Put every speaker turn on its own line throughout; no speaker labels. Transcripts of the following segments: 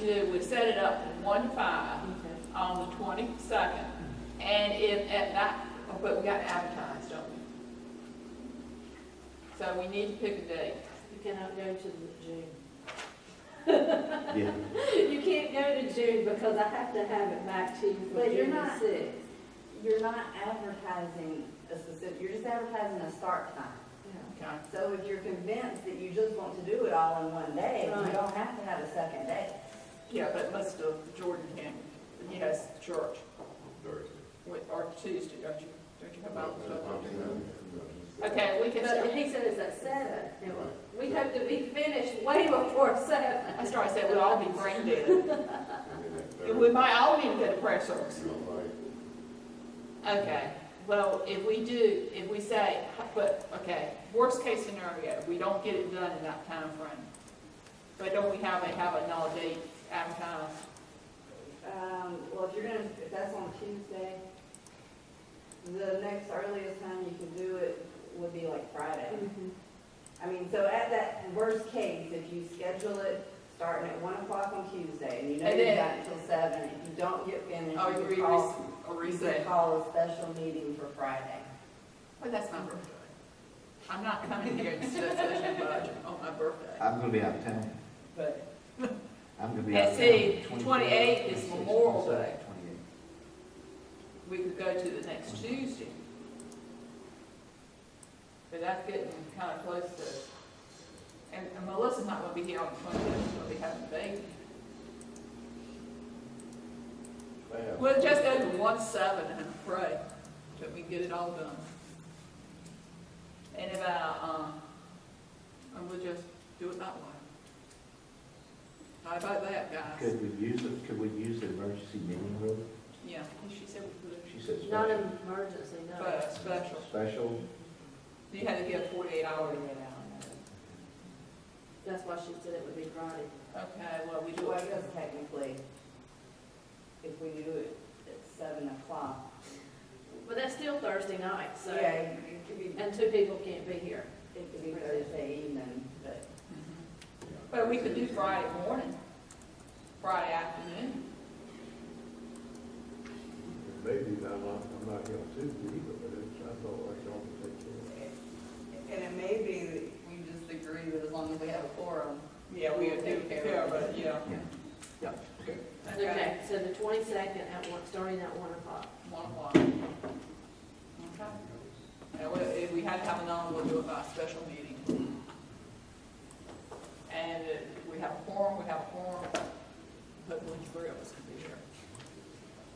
do, we set it up to one to five on the twenty-second. And if, at that, but we gotta advertise, don't we? So we need to pick a date.
You cannot go to the June.
Yeah.
You can't go to June because I have to have it back to you for
But you're
June the
not-
sixth.
You're not advertising a specific, you're just advertising a start time.
Okay.
So if you're convinced that you just want to do it all in one day, you
Right.
don't have to have a second day.
Yeah, but most of Jordan can, he has church with, or Tuesday, don't you, don't you have out? Okay, we can,
But
start-
he said it's at seven, and we hope to be finished way before seven.
I started saying we'll all be brain dead. We might all need to get a prayer service. Okay, well, if we do, if we say, but, okay, worst case scenario, we don't get it done in that time frame. But don't we have a, have a null date advertised?
Um, well, if you're gonna, if that's on Tuesday, the next earliest time you can do it would be like Friday.
Mm-hmm.
I mean, so at that worst case, if you schedule it starting at one o'clock on Tuesday, and you know
And
you've
then-
got until seven, if you don't get finished,
Or
you
we
could call,
or
you could
reset?
call a special meeting for Friday.
But that's my birthday. I'm not coming here and sit such a budget on my birthday.
I'm gonna be out of town.
But
I'm gonna be
And
out of town.
see,
24,
28 is
26,
Memorial
27,
Day. we could go to the next Tuesday. But that's getting kind of close to, and and Melissa's not gonna be here on the twenty-fifth, she'll be having a baby. We'll just go to one seven and pray that we get it all done. And about, um, and we'll just do it that way. How about that,
28.
guys?
Could we use it, could we use the emergency meeting room?
Yeah, she said we could,
She said
Not
special.
an emergency, no.
but special.
Special,
You had to get forty-eight hours.
That's why she said it would be Friday.
Okay, well, we do
Well, I
it.
guess technically, if we do it at seven o'clock,
But that's still Thursday night, so,
yeah, it could be,
and two people can't be here.
it could be Thursday evening, but.
Mm-hmm. But we could do Friday morning, Friday afternoon.
Maybe I'm not, I'm not here on Tuesday either, but it's, I thought I could only take care of it.
And it may be that we just agree that as long as we have a quorum.
Yeah, we would do care, but, yeah.
yeah, yeah, okay.
Okay,
Okay, so the twenty-second at one, starting at one o'clock.
one o'clock. Okay. And we- if we had to have another, we'll do it by a special meeting. And if we have a forum, we have a forum, hopefully three of us can be here.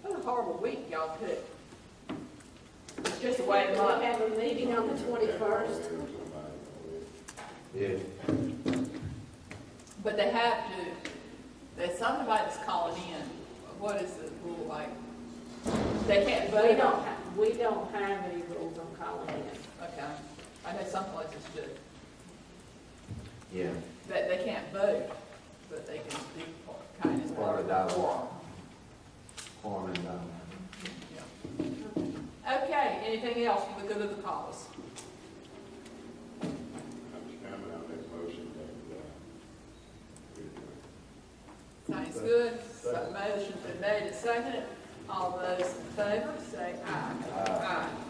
What a horrible week y'all picked. It's just a way
We
of month.
have a meeting on the twenty-first.
Yeah.
But they have to, there's somebody that's calling in, what is the rule like? They can't vote.
We don't, ha- we don't have any rules on calling in.
Okay, I know some places do,
Yeah,
that they can't vote, but they can be kind of.
Part of dialogue. Quorum and, um,
Yeah. Okay, anything else for the good of the cause? Sounds good, so motion's been made and seconded, all those in favor say aye.
Aye.
Aye.